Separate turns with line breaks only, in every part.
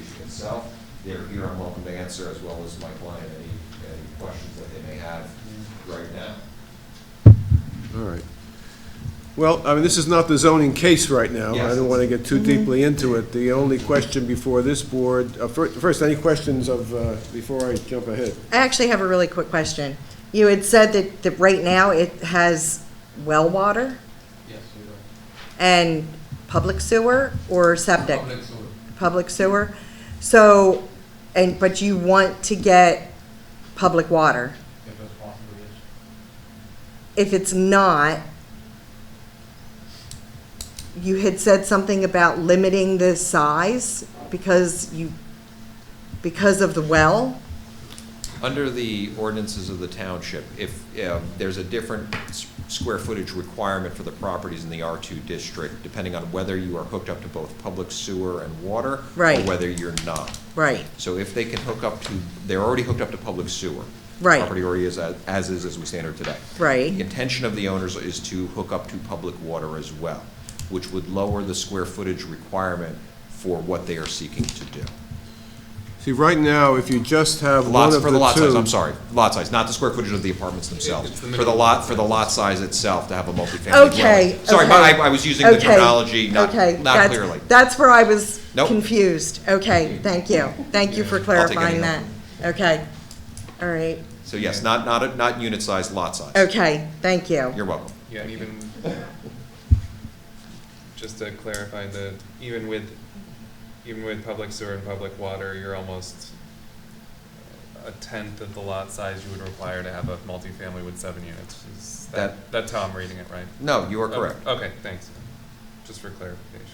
itself, they're here and welcome to answer, as well as my client, any, any questions that they may have right now.
All right. Well, I mean, this is not the zoning case right now. I
Yes.
don't want to get too deeply into it. The only question before this board, uh, fir- first, any questions of, uh, before I jump ahead?
I actually have a really quick question. You had said that, that right now it has well water
Yes, you're right.
and public sewer or septic?
Public sewer.
Public sewer. So, and, but you want to get public water.
if that's possible, yes.
If it's not, you had said something about limiting the size because you, because of the well?
Under the ordinances of the township, if, um, there's a different s- square footage requirement for the properties in the R2 district, depending on whether you are hooked up to both public sewer and water.
Right.
Or whether you're not.
Right,
So if they can hook up to, they're already hooked up to public sewer.
Right.
Property already is, as as is, as we stand here today.
Right.
The intention of the owners is to hook up to public water as well, which would lower the square footage requirement for what they are seeking to do.
See, right now, if you just have one of
Lots,
the two.
for the lot size, I'm sorry, lot size, not the square footage of the apartments themselves.
It's the
For the lot, for the lot size itself to have a multifamily dwelling.
Okay.
Sorry, but
okay.
I, I was using the
Okay,
terminology not,
okay,
not
that's-
clearly.
That's where I was
Nope.
confused. Okay, thank you. Thank you for
I'll take any
clarifying that.
help.
Okay, all right.
So yes, not, not, not unit size, lot size.
Okay, thank you.
You're welcome.
Yeah, and even, just to clarify, the, even with, even with public sewer and public water, you're almost a tenth of the lot size you would require to have a multifamily with seven units. Is
That-
that, that's how I'm reading it, right?
No, you are correct.
Oh, Okay, thanks. Just for clarification.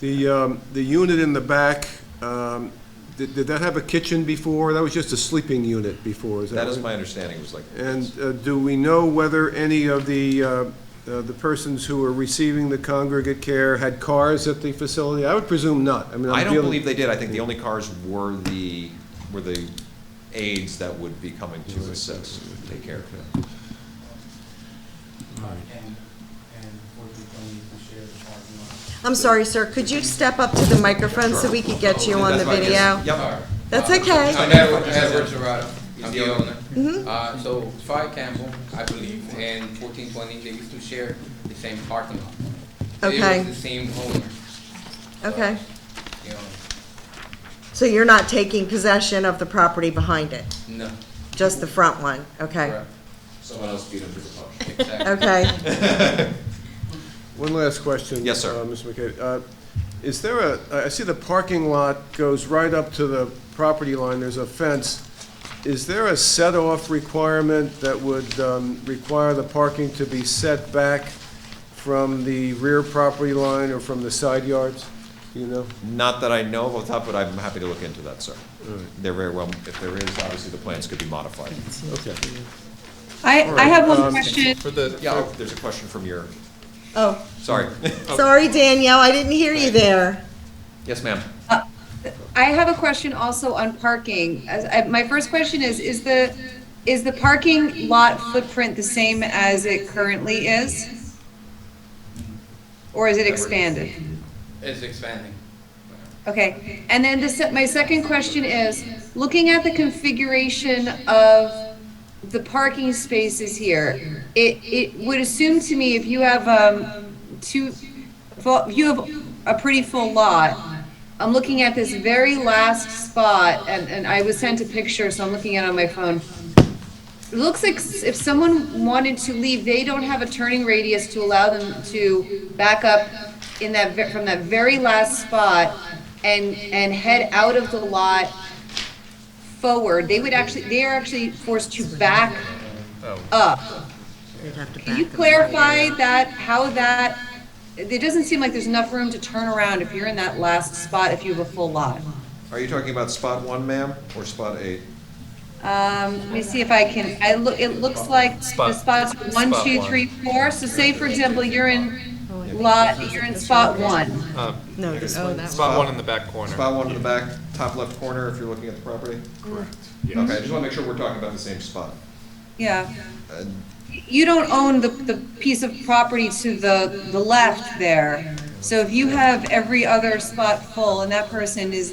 The, um, the unit in the back, um, did, did that have a kitchen before? That was just a sleeping unit before, is that
That is
right?
my understanding, it was like.
And uh, do we know whether any of the, uh, uh, the persons who were receiving the congregate care had cars at the facility? I would presume not. I mean, I'm
I don't
dealing-
believe they did, I think the only cars were the, were the aides that would be coming to assist, take care of it.
And, and fortunately, we share the parking lot.
I'm sorry, sir, could you step up to the microphone so we could get you on the
That's fine, yes.
video?
Yep,
That's
Uh,
okay.
I'm Edward, Edward Gerardo,
He's
I'm
the
the
owner.
owner.
Mm-hmm.
Uh, so Fire Campbell, I believe, and fourteen twenty, they used to share the same parking lot.
Okay.
It was the same owner. So,
Okay.
You know,
So you're not taking possession of the property behind it,
no,
just the front one? Okay,
correct,
someone else beat him to the punch.
exactly.
okay.
One last question.
Yes, sir.
uh, Mr. McKay. Uh, Is there a, I see the parking lot goes right up to the property line, there's a fence. Is there a set-off requirement that would um, require the parking to be set back from the rear property line or from the side yards? Do you know?
Not that I know of off the top, but I'm happy to look into that, sir. They're very well, if there is, obviously the plans could be modified.
Okay.
I,
All
I
right,
have
um,
one question.
For the,
Yeah, oh, there's a question from your,
Oh,
sorry,
sorry, Danielle, I didn't hear you there.
yes, ma'am.
I have a question also on parking. As, I, my first question is, is the, is the parking lot footprint the same as it currently is? Or is it expanded?
It's expanding.
Okay, and then the, se- my second question is, looking at the configuration of the parking spaces here, it, it would assume to me if you have, um, two, well, you have a pretty full lot. I'm looking at this very last spot, and, and I was sent a picture, so I'm looking at it on my phone. It looks like s- if someone wanted to leave, they don't have a turning radius to allow them to back up in that, ve- from that very last spot and, and head out of the lot forward. They would actually, they are actually forced to back
oh,
up. Can you clarify that, how that, it doesn't seem like there's enough room to turn around if you're in that last spot, if you have a full lot.
Are you talking about spot one, ma'am, or spot eight?
Um, let me see if I can, I look, it looks like the
Spot-
spots are one,
spot
two,
one.
three, four, so say for example, you're in lot, you're in spot one.
uh,
No, this one.
spot one in the back corner.
Spot one in the back, top left corner, if you're looking at the property?
Correct.
Mm.
Okay, I just want to make sure we're talking about the same spot.
Yeah.
Uh,
You don't own the, the piece of property to the, the left there. So if you have every other spot full and that person is